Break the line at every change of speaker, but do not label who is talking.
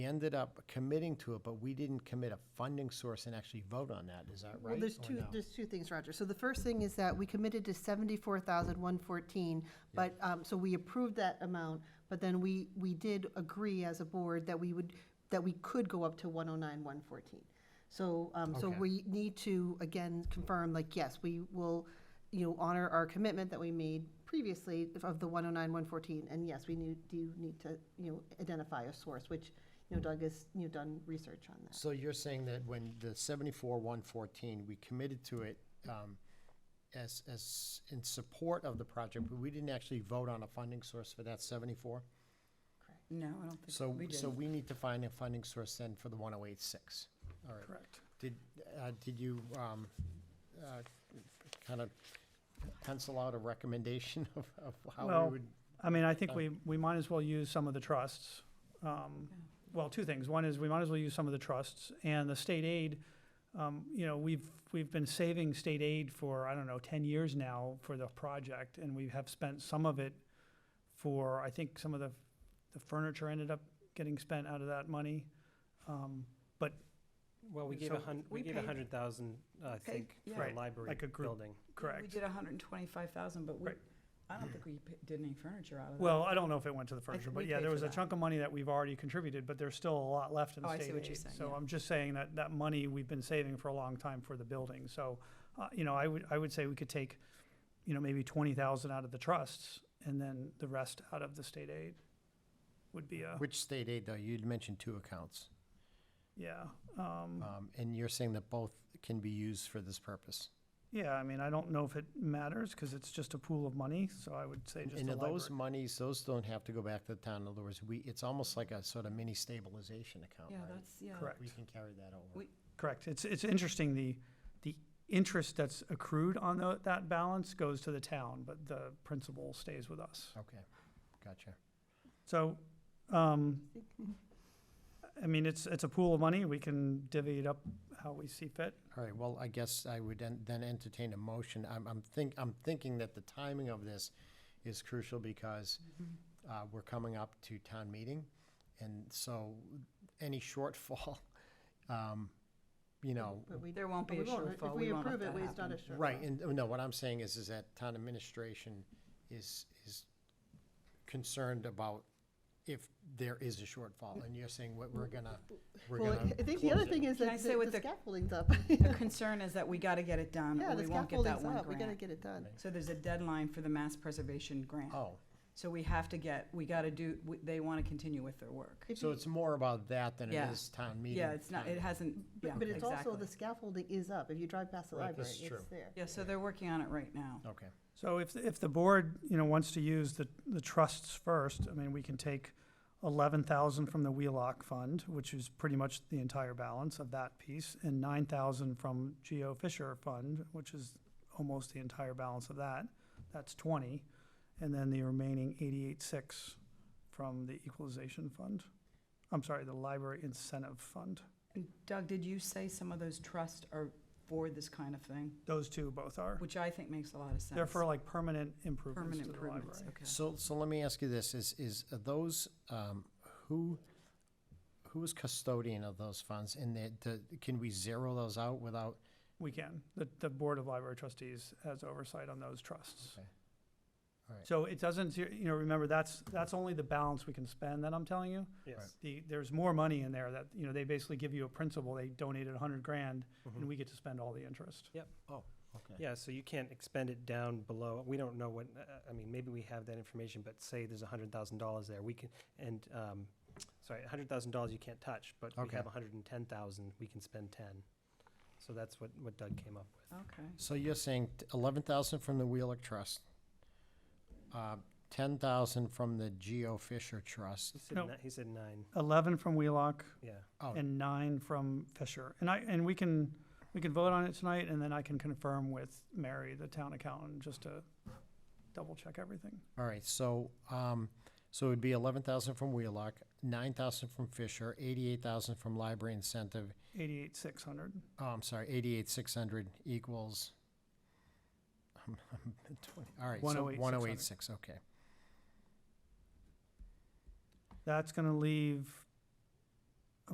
ended up committing to it, but we didn't commit a funding source and actually vote on that. Is that right?
Well, there's
or
two,
no?
there's two things, Roger. So the first thing is that we committed to seventy-four thousand one fourteen, but, um, so we approved that amount, but then we, we did agree as a board that we would, that we could go up to one oh nine one fourteen. So, um, so
Okay.
we need to, again, confirm, like, yes, we will, you know, honor our commitment that we made previously of the one oh nine one fourteen, and yes, we need, do need to, you know, identify a source, which, you know, Doug has, you know, done research on that.
So you're saying that when the seventy-four, one fourteen, we committed to it, um, as, as, in support of the project, but we didn't actually vote on a funding source for that seventy-four?
No, I don't think
So,
we did.
so we need to find a funding source then for the one oh eight six. All right.
Correct.
Did, uh, did you, um, uh, kind of pencil out a recommendation of, of how
Well,
we would?
I mean, I think
Uh,
we, we might as well use some of the trusts. Um,
Yeah.
Well, two things. One is we might as well use some of the trusts and the state aid. um, You know, we've, we've been saving state aid for, I don't know, ten years now for the project and we have spent some of it for, I think some of the, the furniture ended up getting spent out of that money. Um,
Well, we gave
So-
a hun,
We
we gave
paid-
a hundred thousand, I
paid-
think,
yeah.
for
Right,
a library
like a group.
building.
We
Correct.
did hundred and twenty-five thousand, but we,
Right.
I don't think we p- did any furniture out of that.
Well, I don't know if it went to the furniture,
th-
but
we
yeah,
paid
there
for
was a
that.
chunk of money that we've already contributed, but there's still a lot left in
Oh,
the
I see
state
what you're
aid.
saying,
So
yeah.
I'm just saying that that money we've been saving for a long time for the building. So, uh, you know, I would, I would say we could take, you know, maybe twenty thousand out of the trusts and then the rest out of the state aid would be a,
Which state aid, though? You'd mentioned two accounts.
yeah. Um,
Um, and you're saying that both can be used for this purpose?
yeah, I mean, I don't know if it matters because it's just a pool of money, so I would say just
And
the
are those
library.
monies, those don't have to go back to the town, in other words, we, it's almost like a sort of mini stabilization account,
Yeah,
right?
that's, yeah.
Correct.
We can carry that over.
We-
Correct. It's, it's interesting, the, the interest that's accrued on tho- that balance goes to the town, but the principal stays with us.
Okay, gotcha.
So, um, I mean, it's, it's a pool of money. We can divvy it up how we see fit.
All right, well, I guess I would en- then entertain a motion. I'm, I'm think, I'm thinking that the timing of this is crucial because
Mm-hmm.
uh, we're coming up to town meeting, and so any shortfall, um, you know,
But we
There won't be
But
a
we won't.
shortfall.
If we
won't let
approve it,
that
we- it's not
happen.
a shortfall.
Right, and, oh, no, what I'm saying is, is that town administration is, is concerned about if there is a shortfall, and you're saying what we're gonna, we're
Well,
gonna.
I think the other
close it.
thing is
Can I
that
say
the
what
the
the-
scaffolding's up.
The concern is that we gotta get it done,
Yeah,
or
the
we won't get that
scaffolding's
one
up, we gotta
grant.
get it done.
Right.
So there's a deadline for the mass preservation grant.
Oh,
So we have to get, we gotta do, we- they wanna continue with their work.
If
so
you-
it's more about that than it
Yeah.
is town meeting.
Yeah, it's not, it
timing.
hasn't, yeah,
But but it's also, the
exactly.
scaffolding is up, if you drive past the
Right, this
library,
is
it's
true.
there.
Yeah, so they're working on it right now.
Okay,
So if, if the board, you know, wants to use the, the trusts first, I mean, we can take eleven thousand from the Wheelock Fund, which is pretty much the entire balance of that piece, and nine thousand from Geo Fisher Fund, which is almost the entire balance of that. That's twenty, and then the remaining eighty-eight six from the Equalization Fund. I'm sorry, the Library Incentive Fund.
And Doug, did you say some of those trusts are for this kind of thing?
Those two both are.
Which I think makes a lot of sense.
They're for like permanent improvements
Permanent
to the library.
improvements, okay.
so, so let me ask you this, is, is are those, um, who, who is custodian of those funds, and that, the- can we zero those out without?
We can. The, the Board of Library Trustees has oversight on those trusts.
Okay. All right.
So it doesn't, you know, remember, that's, that's only the balance we can spend that I'm telling you.
Yes.
The, there's more money in there that, you know, they basically give you a principal, they donated a hundred grand, and
Mhm.
we get to spend all the interest.
Okay.
Yeah, so you can't expend it down below, we don't know what, uh, I mean, maybe we have that information, but say there's a hundred thousand dollars there, we can, and, um, sorry, a hundred thousand dollars you can't touch, but we
Okay.
have a hundred and ten thousand, we can spend ten. So that's what, what Doug came up with.
Okay.
So you're saying eleven thousand from the Wheelock Trust, uh, ten thousand from the Geo Fisher Trust.
He said,
No.
ni- he said nine,
Eleven from Wheelock
yeah.
Oh,
and nine from Fisher. And I, and we can, we can vote on it tonight, and then I can confirm with Mary, the town accountant, just to double check everything.
all right, so, um, so it'd be eleven thousand from Wheelock, nine thousand from Fisher, eighty-eight thousand from Library Incentive.
Eighty-eight, six hundred.
Oh, I'm sorry, eighty-eight, six hundred equals. I'm- I'm at 20 All right, so
108,600.
one oh eight six, okay.
That's gonna leave